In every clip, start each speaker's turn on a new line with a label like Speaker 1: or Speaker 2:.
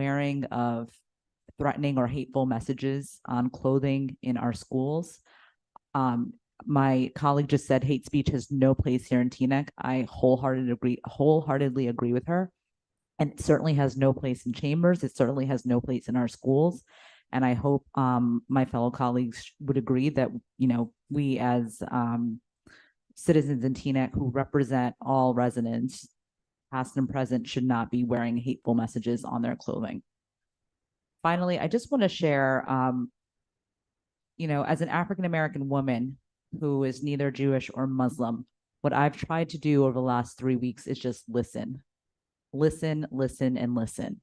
Speaker 1: wearing of threatening or hateful messages on clothing in our schools. Um, my colleague just said hate speech has no place here in Teaneck. I wholeheartedly agree, wholeheartedly agree with her. And it certainly has no place in chambers. It certainly has no place in our schools. And I hope um, my fellow colleagues would agree that, you know, we as um, citizens in Teaneck who represent all residents, past and present, should not be wearing hateful messages on their clothing. Finally, I just want to share, um, you know, as an African American woman who is neither Jewish or Muslim, what I've tried to do over the last three weeks is just listen, listen, listen, and listen.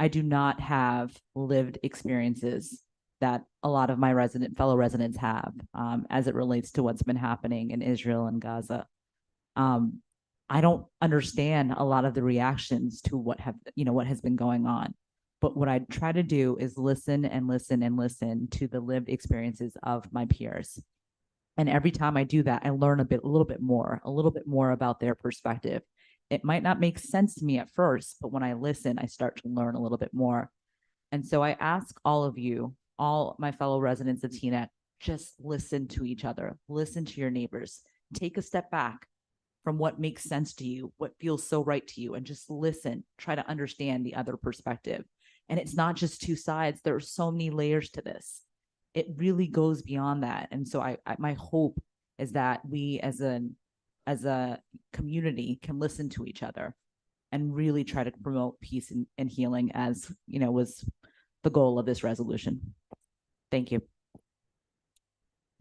Speaker 1: I do not have lived experiences that a lot of my resident fellow residents have um, as it relates to what's been happening in Israel and Gaza. Um, I don't understand a lot of the reactions to what have you know what has been going on. But what I try to do is listen and listen and listen to the lived experiences of my peers. And every time I do that, I learn a bit, a little bit more, a little bit more about their perspective. It might not make sense to me at first, but when I listen, I start to learn a little bit more. And so I ask all of you, all my fellow residents of Teaneck, just listen to each other, listen to your neighbors, take a step back from what makes sense to you, what feels so right to you, and just listen, try to understand the other perspective. And it's not just two sides, there are so many layers to this it really goes beyond that and so I, I my hope is that we as an as a community can listen to each other and really try to promote peace and, and healing as you know was the goal of this resolution thank you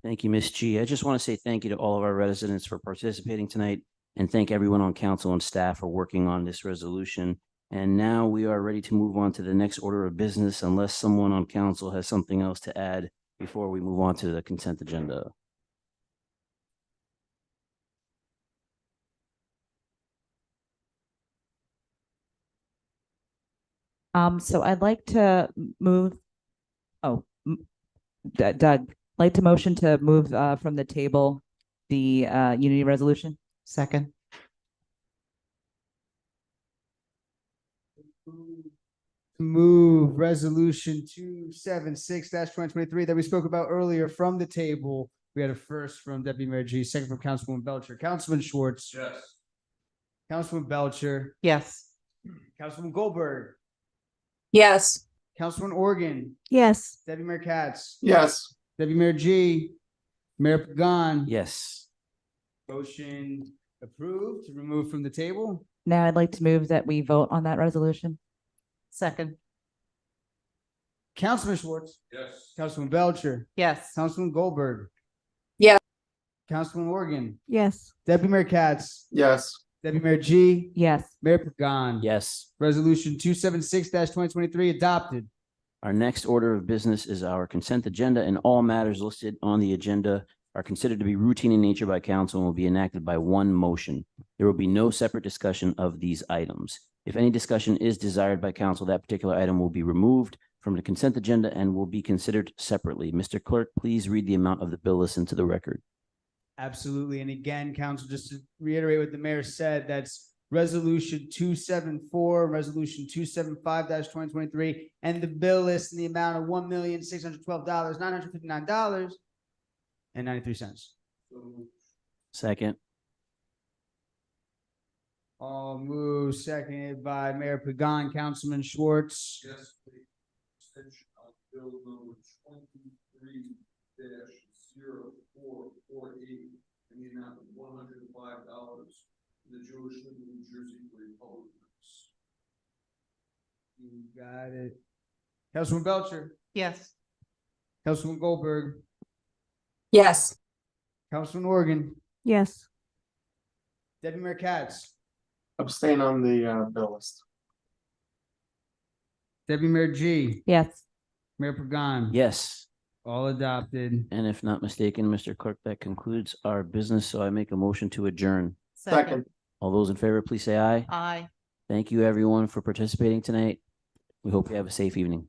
Speaker 2: Thank you, Ms. G. I just want to say thank you to all of our residents for participating tonight and thank everyone on council and staff for working on this resolution. And now we are ready to move on to the next order of business unless someone on council has something else to add before we move on to the consent agenda.
Speaker 1: um so i'd like to m- move oh m- D- doug like to motion to move uh from the table the uh unity resolution
Speaker 3: Second,
Speaker 4: Move resolution two seven six twenty twenty-three that we spoke about earlier from the table. We had a first from Deputy Mayor G, second from Councilwoman Belcher, Councilman Schwartz. Yes. Councilman Belcher,
Speaker 3: yes.
Speaker 4: Councilman Goldberg,
Speaker 5: Yes.
Speaker 4: Councilman Organ,
Speaker 5: Yes.
Speaker 4: Deputy Mayor Katz,
Speaker 6: Yes.
Speaker 4: Deputy Mayor G, Mayor Pagan.
Speaker 2: Yes,
Speaker 4: Motion approved, to remove from the table.
Speaker 1: now i'd like to move that we vote on that resolution
Speaker 3: Second,
Speaker 4: Councilman Schwartz. Yes. Councilman Belcher,
Speaker 3: yes.
Speaker 4: Councilman Goldberg.
Speaker 5: Yeah.
Speaker 4: Councilman Organ,
Speaker 5: Yes.
Speaker 4: Deputy Mayor Katz,
Speaker 6: Yes.
Speaker 4: Deputy Mayor G,
Speaker 1: Yes,
Speaker 4: Mayor Pagan.
Speaker 2: yes.
Speaker 4: Resolution two seven six twenty twenty-three adopted.
Speaker 2: Our next order of business is our consent agenda and all matters listed on the agenda are considered to be routine in nature by council and will be enacted by one motion. There will be no separate discussion of these items. If any discussion is desired by council, that particular item will be removed from the consent agenda and will be considered separately. Mr. Clerk, please read the amount of the bill listed to the record.
Speaker 4: Absolutely. And again, council, just to reiterate what the mayor said, that's resolution two seven four, resolution two seven five twenty twenty-three. And the bill list in the amount of one million, six hundred twelve dollars, nine hundred fifty-nine dollars and ninety-three cents.
Speaker 2: Second.
Speaker 4: All move seconded by Mayor Pagan, Councilman Schwartz.
Speaker 6: Yes, please. Extension of bill number twenty-three dash zero four four eight in the amount of one hundred and five dollars to the Jewish League of New Jersey Republicans.
Speaker 4: You got it. Councilman Belcher,
Speaker 3: Yes.
Speaker 4: Councilman Goldberg,
Speaker 5: Yes.
Speaker 4: Councilman Organ,
Speaker 5: Yes.
Speaker 4: Deputy Mayor Katz,
Speaker 6: Abstain on the uh bill list.
Speaker 4: Deputy Mayor G,
Speaker 1: yes,
Speaker 4: Mayor Pagan.
Speaker 2: Yes.
Speaker 4: All adopted.
Speaker 2: And if not mistaken, Mr. Clerk, that concludes our business. So I make a motion to adjourn.
Speaker 6: Second.
Speaker 2: All those in favor, please say aye.
Speaker 3: Aye.
Speaker 2: Thank you, everyone, for participating tonight. We hope you have a safe evening.